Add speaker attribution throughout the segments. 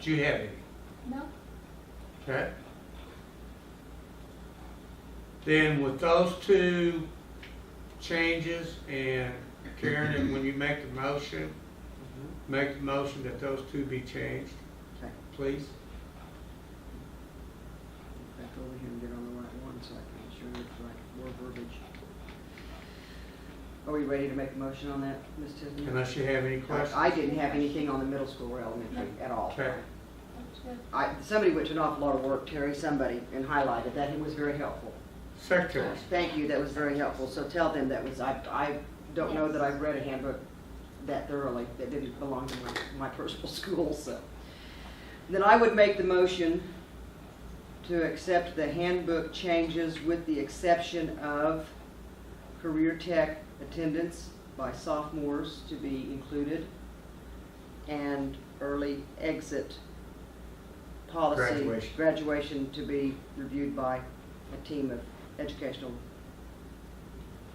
Speaker 1: Do you have any?
Speaker 2: No?
Speaker 1: Okay. Then with those two changes and Karen, and when you make the motion, make the motion that those two be changed,
Speaker 3: Mm-hmm. Okay,
Speaker 1: please.
Speaker 3: back over here and get on the right one so I can make sure it's like more verbiage. Are we ready to make a motion on that, Ms. Tiffany?
Speaker 1: Unless you have any questions.
Speaker 3: I didn't have anything on the middle school or elementary at all.
Speaker 1: Okay,
Speaker 2: That's good.
Speaker 3: I, somebody went to an awful lot of work, Terry, somebody, and highlighted that, it was very helpful.
Speaker 1: secretaries,
Speaker 3: Thank you, that was very helpful, so tell them that was, I, I don't know that I've read a handbook that thoroughly, that didn't belong to my, my personal school, so. Then I would make the motion to accept the handbook changes with the exception of career tech attendance by sophomores to be included and early exit policy.
Speaker 1: Graduation.
Speaker 3: graduation to be reviewed by a team of educational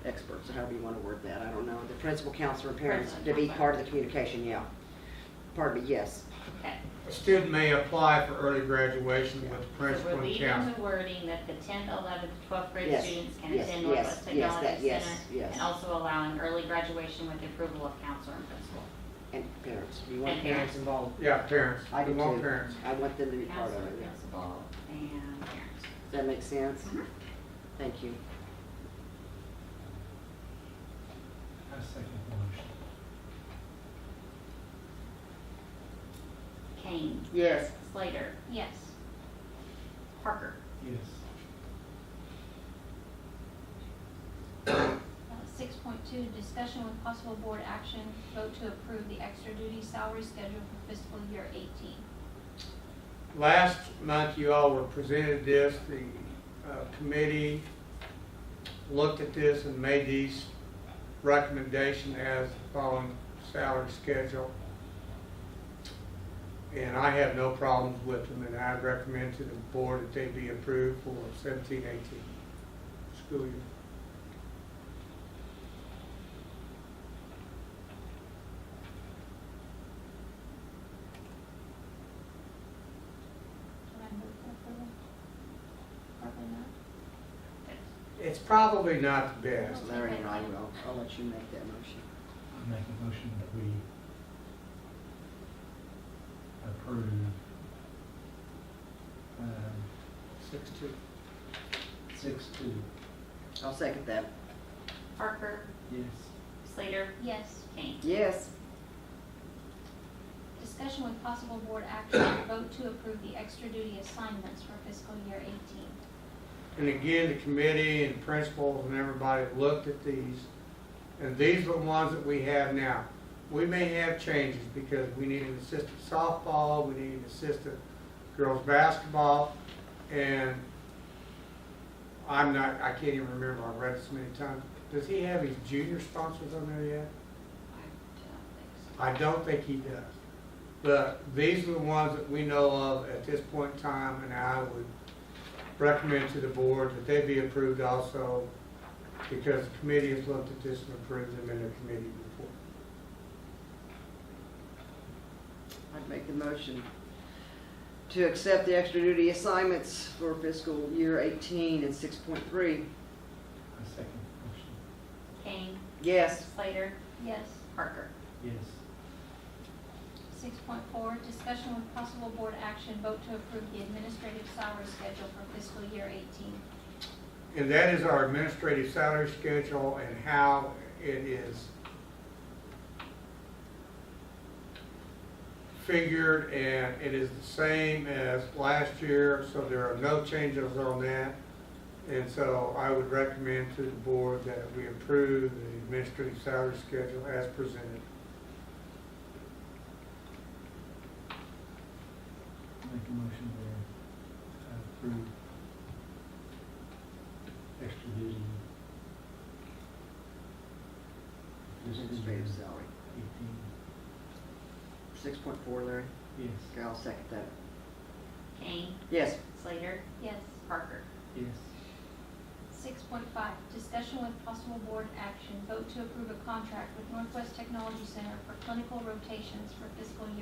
Speaker 3: experts, however you want to word that, I don't know. The principal, counselor, and parents to be part of the communication, yeah. Pardon me, yes.
Speaker 4: Okay,
Speaker 1: a student may apply for early graduation with the
Speaker 4: so
Speaker 1: principal
Speaker 4: we're
Speaker 1: and
Speaker 4: leaving
Speaker 1: counselor.
Speaker 4: the wording that the tenth, eleventh, twelfth grade
Speaker 3: Yes,
Speaker 4: students can
Speaker 3: yes,
Speaker 4: attend
Speaker 3: yes,
Speaker 4: Northwest
Speaker 3: yes, that-
Speaker 4: Technology
Speaker 3: yes,
Speaker 4: Center.
Speaker 3: yes.
Speaker 4: And also allowing early graduation with the approval of counselor and principal.
Speaker 3: And parents, you want
Speaker 4: And
Speaker 3: parents
Speaker 4: parents.
Speaker 3: involved?
Speaker 1: Yeah, parents,
Speaker 3: I do
Speaker 1: we want
Speaker 3: too.
Speaker 1: parents.
Speaker 3: I want them to be part of
Speaker 4: Counselor,
Speaker 3: it, yeah.
Speaker 4: principal, and parents.
Speaker 3: Does that make sense?
Speaker 4: Mm-hmm.
Speaker 3: Thank you.
Speaker 5: I second the motion.
Speaker 4: Kane,
Speaker 3: Yes.
Speaker 4: Slater,
Speaker 2: Yes.
Speaker 4: Parker.
Speaker 5: Yes.
Speaker 2: Uh, Six point two, discussion with possible board action, vote to approve the extra duty salary schedule for fiscal year eighteen.
Speaker 1: Last month, you all were presented this, the uh, committee looked at this and made these recommendation as the following salary schedule. And I have no problems with them, and I recommend to the board that they be approved for seventeen, eighteen school year.
Speaker 2: Can I move for approval? Probably not.
Speaker 1: It's probably not the best.
Speaker 3: Larry and I will, I'll let you make that motion.
Speaker 5: I make a motion that we approve, um,
Speaker 3: Six two.
Speaker 5: six two.
Speaker 3: I'll second that.
Speaker 4: Parker,
Speaker 5: Yes.
Speaker 4: Slater,
Speaker 2: Yes.
Speaker 4: Kane.
Speaker 3: Yes.
Speaker 2: Discussion with possible board action, vote to approve the extra duty assignments for fiscal year eighteen.
Speaker 1: And again, the committee and principals and everybody looked at these, and these are the ones that we have now. We may have changes because we need an assistant softball, we need an assistant girls' basketball, and I'm not, I can't even remember, I've read it so many times. Does he have his junior sponsors on there yet?
Speaker 4: I don't
Speaker 1: I don't think he does. But these are the ones that we know of at this point in time, and I would recommend to the board that they be approved also, because the committee has looked at this and approved them in their committee report.
Speaker 3: I'd make the motion to accept the extra duty assignments for fiscal year eighteen and six point three.
Speaker 5: I second the motion.
Speaker 4: think so. Kane,
Speaker 3: Yes.
Speaker 4: Slater,
Speaker 2: Yes.
Speaker 4: Parker.
Speaker 5: Yes.
Speaker 2: Six point four, discussion with possible board action, vote to approve the administrative salary schedule for fiscal year eighteen.
Speaker 1: And that is our administrative salary schedule and how it is figured, and it is the same as last year, so there are no changes on that. And so I would recommend to the board that we approve the administrative salary schedule as presented.
Speaker 5: Make a motion to approve extra duty. Fiscal
Speaker 3: Administrative
Speaker 5: year
Speaker 3: salary.
Speaker 5: Eighteen.
Speaker 3: Six point four, Larry.
Speaker 5: Yes.
Speaker 3: Okay, I'll second that.
Speaker 4: Kane,
Speaker 3: Yes.
Speaker 4: Slater,
Speaker 2: Yes.
Speaker 4: Parker.
Speaker 5: Yes.
Speaker 2: Six point five, discussion with possible board action, vote to approve a contract with Northwest Technology Center for clinical rotations for fiscal year